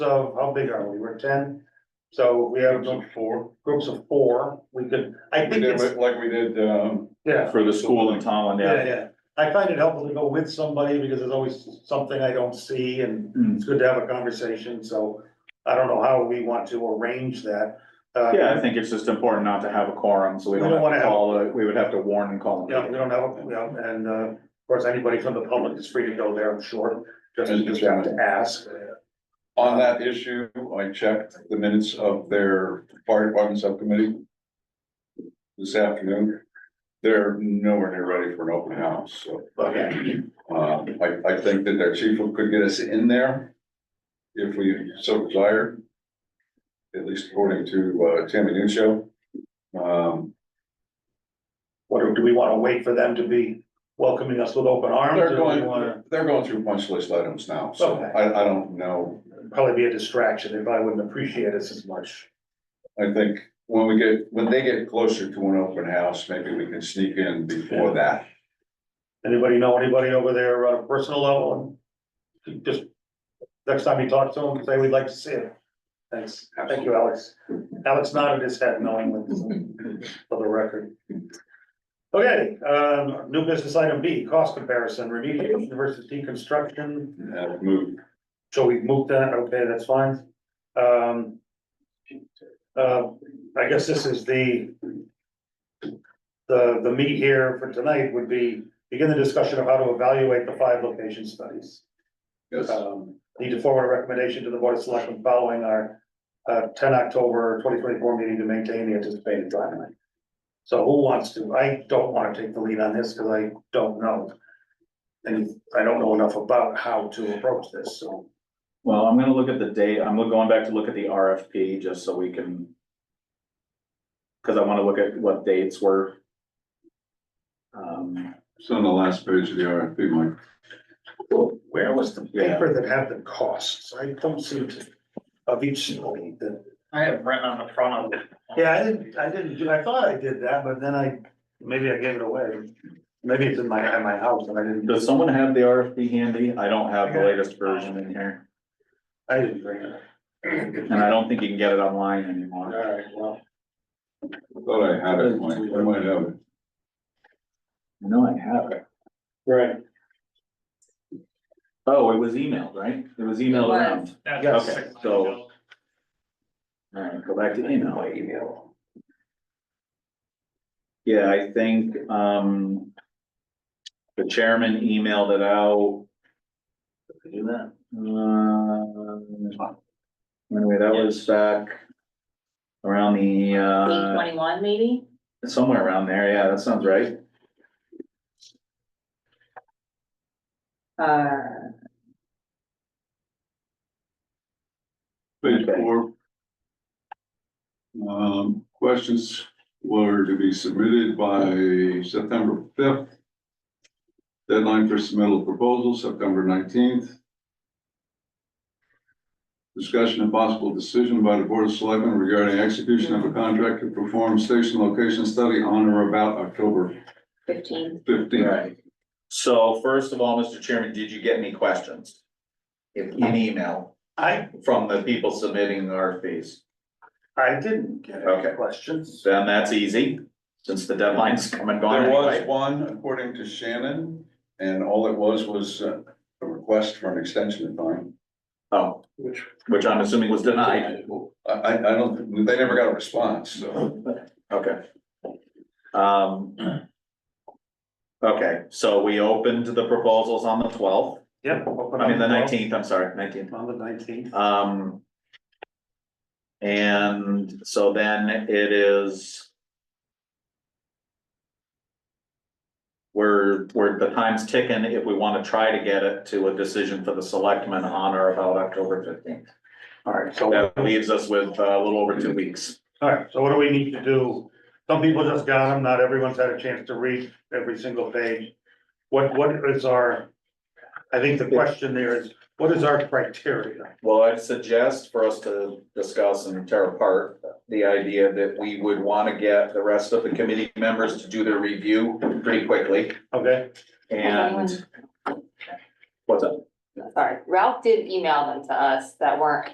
So how big are we? We're ten? So we have Groups of four. groups of four. We could, I We think did, it's, like- like we did, um, yeah, for the school in Tallinn, yeah, yeah. yeah. I find it helpful to go with somebody because there's always something I don't see and Mm. Hmm. it's good to have a conversation, so I don't know how we want to arrange that. Uh, Yeah, I think it's just important not to have a quorum, so we We don't don't have wanna to have- call, a- we would have to warn and call. a Yeah, we meeting. don't have, a- yeah, and, uh, of course, anybody from the public is free to go there, I'm sure, just, you just have to ask. on that issue, I checked the minutes of their fire department subcommittee. This afternoon, they're nowhere near ready for an open house, so, But, yeah, uh, I, I think that their chief could get us in there. If we so desire. At least according to, uh, Tammy Nucio. Um, what, do we wanna wait for them to be welcoming us with open arms? or they're do we wanna- going, they're going through punch list items now, so Okay. I, I don't know probably be a distraction. They probably wouldn't appreciate us as much. I think when we get, when they get closer to an open house, maybe we can sneak in before that. Anybody know anybody over there on a personal level? And Just next time you talk to them, say we'd like to see it. Thanks. Thank you, Alex. Alex nodded his head knowingly for the record. Okay, um, new business item B, cost comparison, remediation versus deconstruction. Uh, move, So we moved that, okay, that's fine. Um. uh, I guess this is the. The, the meat here for tonight would be begin the discussion of how to evaluate the five location studies. yes, Um, need to forward a recommendation to the board of selectmen following our. Uh, ten October twenty twenty-four meeting to maintain the anticipated timeline. So who wants to, I don't wanna take the lead on this, cause I don't know. And I don't know enough about how to approach this, so. Well, I'm gonna look at the date, I'm going back to look at the RFP, just so we can. Cause I wanna look at what dates were. Um, it's on the last page of the RFP, Mike. Where was the Yeah. paper that had the costs? I don't seem to, of each story that. I have written on the front of it. Yeah, I didn't, I didn't, do- I thought I did that, but then I, maybe I gave it away. Maybe it's in my, at my house and I didn't, does someone have the RFP handy? I don't have the latest version in here, I didn't bring it. and I don't think you can get it online anymore. Alright, well, Thought I had it, Mike, I might have it. No, I have it. right, Oh, it was emailed, right? It was It emailed was. around. That's- Okay, so- Alright, go back to email. Email. Yeah, I think, um. The chairman emailed it out. Did I do that? Um. Anyway, that was back. Around the, Eight uh, twenty-one, maybe? somewhere around there, yeah, that sounds right. Uh, Page Okay. four. Um, questions were to be submitted by September fifth. Deadline for submittal proposal, September nineteenth. Discussion and possible decision by the Board of Selectmen regarding execution of a contract to perform station location study on or about October fifteen. fifteenth. Right. So first of all, Mr. Chairman, did you get any questions? In email I, from the people submitting RFPs? I didn't get any Okay. questions. Then that's easy, since the deadline's come and gone There was anyway. one, according to Shannon, and all it was was uh, a request for an extension of time. Oh, Which- which I'm assuming was denied, I, I, I don't, they never got a response, so. okay. Um. Okay, so we opened the proposals on the twelfth, Yep. open I mean, the on twelve- nineteenth, I'm sorry, nineteenth, On the nineteenth, um. And so then it is. We're, we're, the time's ticking if we wanna try to get it to a decision for the selectmen on or about October fifteenth. alright, so, That leaves us with uh, a little over two weeks. alright, so what do we need to do? Some people just got them, not everyone's had a chance to read every single page. What, what is our, I think the question there is, what is our criteria? Well, I'd suggest for us to discuss and tear apart the idea that we would want to get the rest of the committee members to do their review pretty quickly Okay, and. What's up? Sorry, Ralph did email them to us that weren't